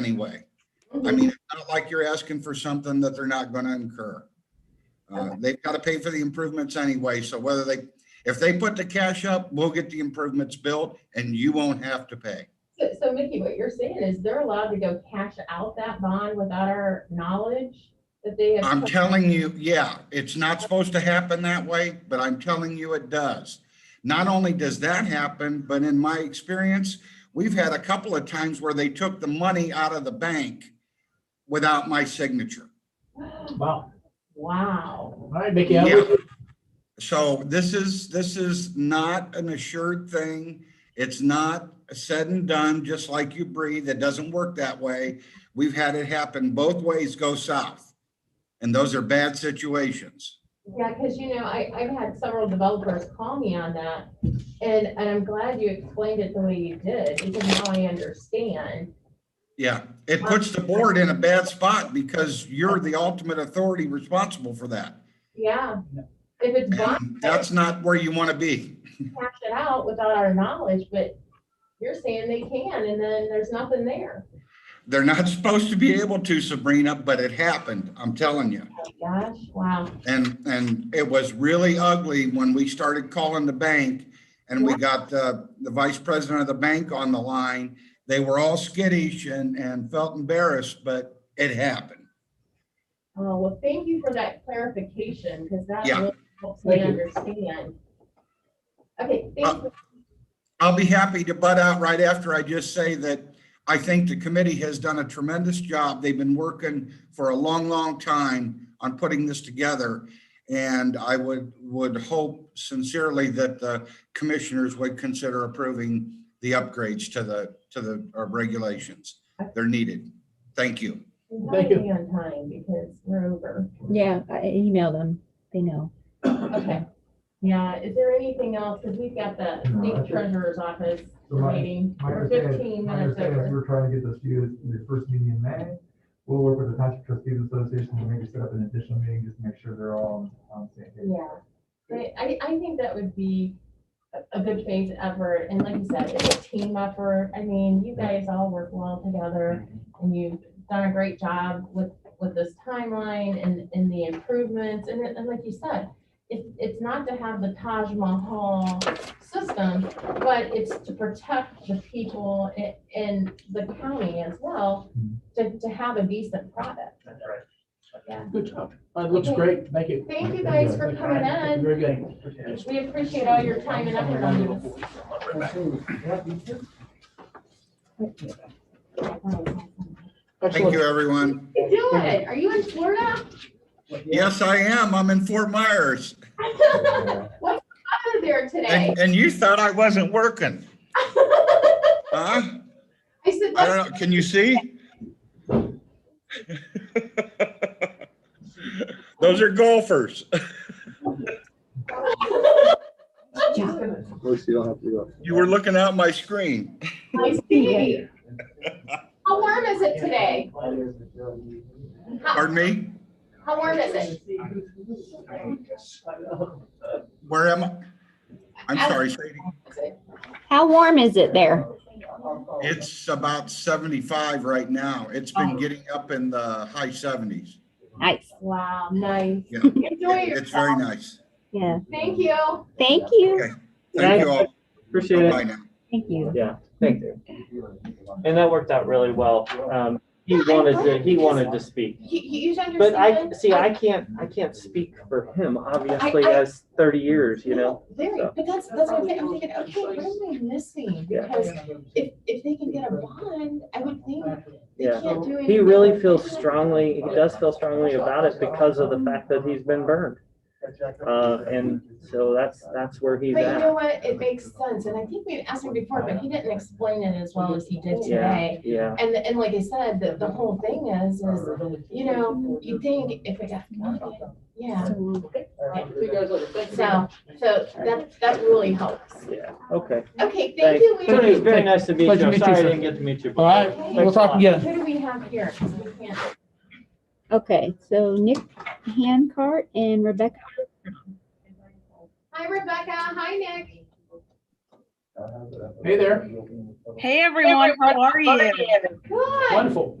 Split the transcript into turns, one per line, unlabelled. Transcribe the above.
anyway. I mean, it's not like you're asking for something that they're not gonna incur. Uh, they've gotta pay for the improvements anyway, so whether they, if they put the cash up, we'll get the improvements built and you won't have to pay.
So, so Mickey, what you're saying is they're allowed to go cash out that bond without our knowledge that they have.
I'm telling you, yeah, it's not supposed to happen that way, but I'm telling you it does. Not only does that happen, but in my experience, we've had a couple of times where they took the money out of the bank without my signature.
Wow.
Wow.
All right, Mickey, I'm
Yeah.
with you.
So this is, this is not an assured thing. It's not said and done, just like you breathe. It doesn't work that way. We've had it happen both ways go south. And those are bad situations.
Yeah, because you know, I, I've had several developers call me on that. And, and I'm glad you explained it the way you did because now I understand.
Yeah, it puts the board in a bad spot because you're the ultimate authority responsible for that.
Yeah. If it's bond,
And That's not where you want to be.
cash it out without our knowledge, but you're saying they can and then there's nothing there.
They're not supposed to be able to, Sabrina, but it happened, I'm telling you.
Oh, Gosh, wow.
And, and it was really ugly when we started calling the bank and we got the, the vice president of the bank on the line. They were all skittish and, and felt embarrassed, but it happened.
Oh, well, thank you for that clarification, because that
Yeah.
really helps me
Thank you.
understand. Okay, thank you.
I'll be happy to butt out right after I just say that I think the committee has done a tremendous job. They've been working for a long, long time on putting this together. And I would, would hope sincerely that the commissioners would consider approving the upgrades to the, to the uh, regulations. They're needed. Thank you.
We
Thank
gotta
you.
be on time because we're over.
Yeah, I email them. They know.
Okay. Yeah, is there anything else? Because we've got the
No, I
state
think-
treasurer's office
So my-
meeting.
My
We're
understanding,
fifteen
my
minutes
understanding is
over.
we're trying to get this to you in the first meeting in May. We'll work with the Township Trustees Association to maybe set up an additional meeting, just to make sure they're all on, on the same page.
Yeah. But I, I think that would be a- a good faith effort. And like you said, it's a team effort. I mean, you guys all work well together. and you've done a great job with, with this timeline and, and the improvements, and, it- and like you said, it's, it's not to have the Taj Mahal system, but it's to protect the people a- and the county as well, to, to have a decent product.
That's right.
Yeah.
Good job.
Uh,
That looks great. Thank you.
Thank you guys for coming in.
Very good.
We appreciate all your time and effort on this.
Thank you,
Excellent.
everyone.
You do it. Are you in Florida?
Yes, I am. I'm in Fort Myers.
Out of there today.
And, and you thought I wasn't working, huh?
I said,
I
that's
don't know. Can you see? Those are golfers.
Of course, you don't have to go.
You were looking out my screen.
I see. How warm is it today? How,
Pardon me?
how warm is it?
Where am I? I'm sorry, Sadie.
How warm is it there?
It's about 75 right now. It's
Oh.
been getting up in the high 70s.
Nice.
Wow, nice.
Yeah.
Enjoy
It's very
yourself.
nice.
Yeah.
Thank you.
Thank you.
Thank you all.
Appreciate it.
Bye now.
Thank you.
Yeah, thank you. And that worked out really well. Um, he wanted to, he wanted to speak.
You, you should
But I,
understand.
see, I can't, I can't speak for him, obviously,
I- I-
as thirty years, you know?
Very,
so.
but that's, that's what I'm thinking, I'm thinking, okay, what am I missing?
Yeah.
Because if, if they can get a bond, I would think they
Yeah.
can't do anything.
He really feels strongly, he does feel strongly about it because of the fact that he's been burned. Uh, and so that's, that's where he's
But you know
at.
what, it makes sense, and I think we asked him before, but he didn't explain it as well as he did today.
Yeah, yeah.
And, and like I said, the, the whole thing is, is, you know, you think if it got funded, yeah. So, so that, that really helps.
Yeah, okay.
Okay, thank
Thanks.
you. We-
It was very nice to meet you.
Pleasure to meet you,
I'm Sorry
sir.
I didn't get to meet you.
All right, we'll talk again.
Who do we have here? 'Cause we can't-
Okay, so Nick Hancart and Rebecca.
Hi Rebecca, hi Nick. Hey there.
Hey, everyone. How are you?
Good.
Wonderful.